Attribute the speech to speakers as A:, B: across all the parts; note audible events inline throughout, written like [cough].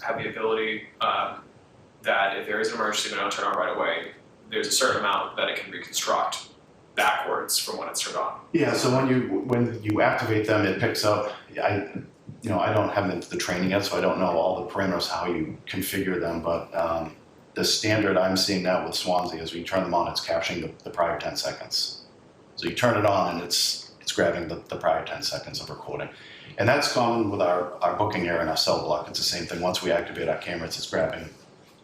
A: have the ability um, that if there is an emergency we don't turn on right away, there's a certain amount that it can reconstruct backwards from when it's turned on.
B: Yeah, so when you, when you activate them, it picks up, I, you know, I don't have the, the training yet, so I don't know all the parameters, how you configure them, but, um, the standard I'm seeing now with Swansea is when you turn them on, it's capturing the, the prior ten seconds. So you turn it on and it's, it's grabbing the, the prior ten seconds of recording. And that's common with our, our booking error and our cell block, it's the same thing, once we activate our cameras, it's grabbing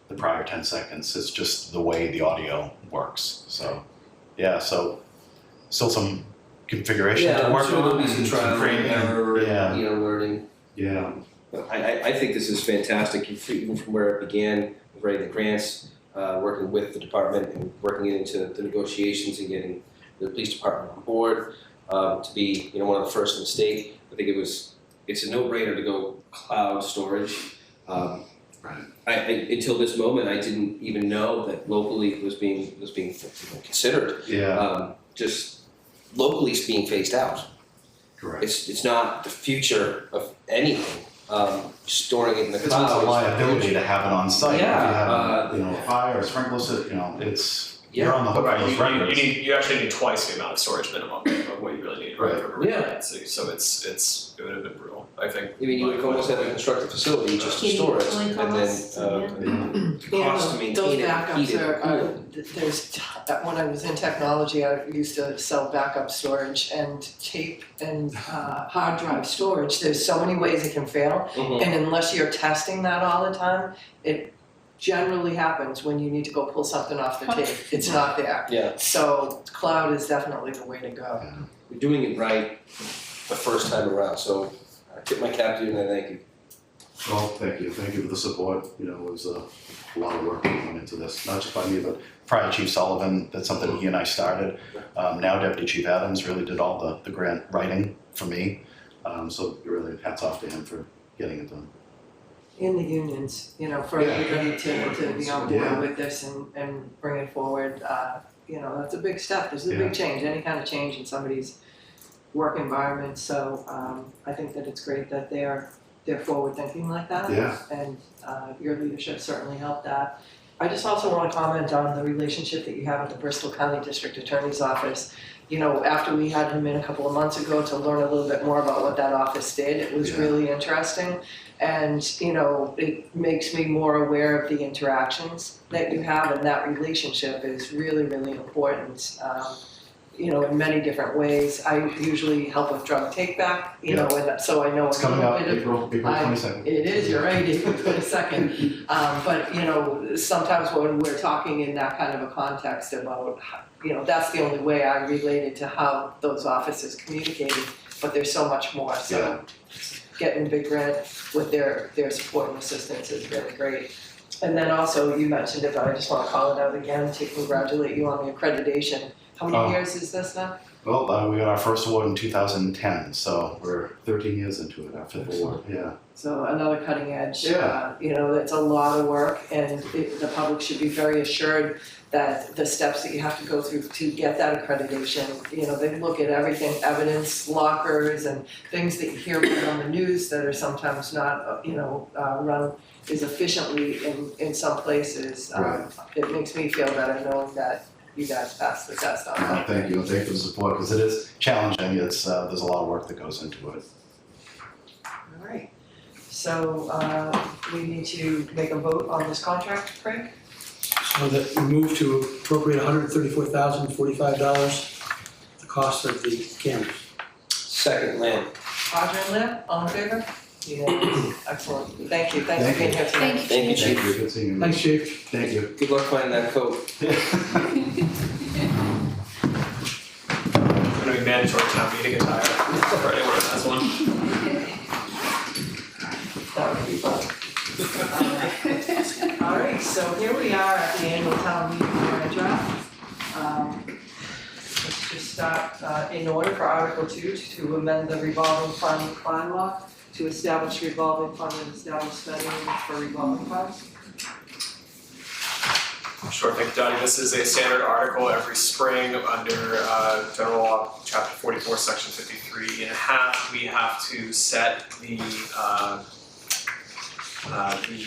B: the prior ten seconds, it's just the way the audio works, so, yeah, so, still some configuration
C: Yeah,
B: to
C: I'm
B: work
C: sure there'll
B: on
C: be some
B: and
C: trial and
B: training.
C: error,
B: Yeah.
C: and, you know, learning.
B: Yeah,
C: But I, I, I think this is fantastic, even from where it began, writing the grants, uh, working with the department and working it into the negotiations and getting the police department on board, um, to be, you know, one of the first in the state. I think it was, it's a no-brainer to go cloud storage. Um,
B: Right.
C: I, I, until this moment, I didn't even know that locally it was being, was being you know, considered.
B: yeah,
C: Um, just locally it's being phased out.
B: correct.
C: It's, it's not the future of anything, um, storing it in the
B: It's
C: cloud.
B: not a
C: is-
B: liability to have it on site, if you
C: Yeah,
B: have, a,
C: uh,
B: you know, a fire, a sprinkler system, you know, it's, you're
C: Yeah.
B: on the hook for
A: You,
B: those
A: you, you
B: records.
A: need you actually need twice the amount of storage minimum of what you really need right,
B: Right.
A: for
C: Yeah.
A: redundancy. So it's it's it would have been brutal. I think.
C: I mean, you would almost have to construct a facility just to
D: Heating,
C: store it,
D: cooling
C: and then,
D: costs,
C: uh,
E: [clears throat]
C: the cost to
E: Yeah, those
C: maintain it, and heat
E: backups
C: it,
E: are,
C: cool
E: are,
C: it.
E: th- there's, t- that when I was in technology, I used to sell backup storage and tape and uh, hard drive storage. There's so many ways it can fail,
C: Mhm.
E: and unless you're testing that all the time, it generally happens when you need to go pull something off the tape. It's not there.
C: Yeah,
E: So cloud is definitely the way to go.
C: we're doing it right the first time around, so I tip my cap to you and I thank you.
B: Well, thank you, thank you for the support, you know, it was a lot of work that went into this, not just by me, but prior Chief Sullivan, that's something he and I started. Um, now Deputy Chief Adams really did all the, the grant writing for me, um, so really hats off to him for getting it done.
E: In the unions, you know, for
B: Yeah.
E: everybody to, to be on
B: Yeah.
E: board with this and, and bring it forward, uh, you know, that's a big step, this is a
B: Yeah.
E: big change, any kind of change in somebody's work environment, so, um, I think that it's great that they're, they're forward thinking like that.
B: Yeah.
E: And, uh, your leadership certainly helped that. I just also wanna comment on the relationship that you have with the Bristol County District Attorney's Office. You know, after we had him in a couple of months ago to learn a little bit more about what that office did, it was
B: Yeah.
E: really interesting. And, you know, it makes me more aware of the interactions that you have and that relationship is really, really important. Um, you know, in many different ways. I usually help with drug take back, you know, and so I know
B: It's
E: a
B: coming
E: little
B: up
E: bit of
B: April, April
E: I-
B: twenty-second.
E: it is, you're right, April twenty-second. Um, but, you know, sometimes when we're talking in that kind of a context about, how- you know, that's the only way I related to how those offices communicated, but there's so much more, so. Getting Big Red with their, their support and assistance is really great. And then also, you mentioned it, but I just wanna call it out again to congratulate you on the accreditation. How
B: Oh.
E: many years is this now?
B: Well, uh, we got our first award in 2010, so we're 13 years into it after the award. Yeah.
E: So another cutting edge,
B: Yeah.
E: uh, you know, that's a lot of work and it, the public should be very assured that the steps that you have to go through to get that accreditation, you know, they look at everything, evidence, lockers and things that you hear about on the news that are sometimes not, uh, you know, uh, run as efficiently in, in some places. Um,
B: Right.
E: It makes me feel better knowing that you guys passed the test on
B: Uh,
E: that.
B: thank you, and thank you for the support because it is challenging. It's uh, there's a lot of work that goes into it.
E: All right. So, uh, we need to make a vote on this contract, Frank?
F: So that we move to appropriate hundred and thirty-four thousand forty-five dollars, the cost of the cameras.
C: Second land,
E: Roger and Lynn, all in favor? Yes. [coughs] Excellent, thank you, thanks
B: Thank
E: for being
B: you.
E: here tonight.
C: thank you,
B: Thank you.
C: chief.
B: Good seeing you.
F: Thanks, Chief.
B: Thank you.
C: Good luck finding that coat.
B: [laughs]
A: It's going to be mandatory town meeting attire
C: [laughs]
A: for anyone who has one.
E: That would be fun. All right, so here we are at the annual town meeting for a draft. Um, Let's just start uh, in order for Article Two to amend the revolving fund bylaw to establish revolving fund and establish spending for revolving funds.
A: Sure thing, Donnie. This is a standard article every spring under uh, General Law, Chapter 44, Section 53 and a half. We have to set the, uh, uh, the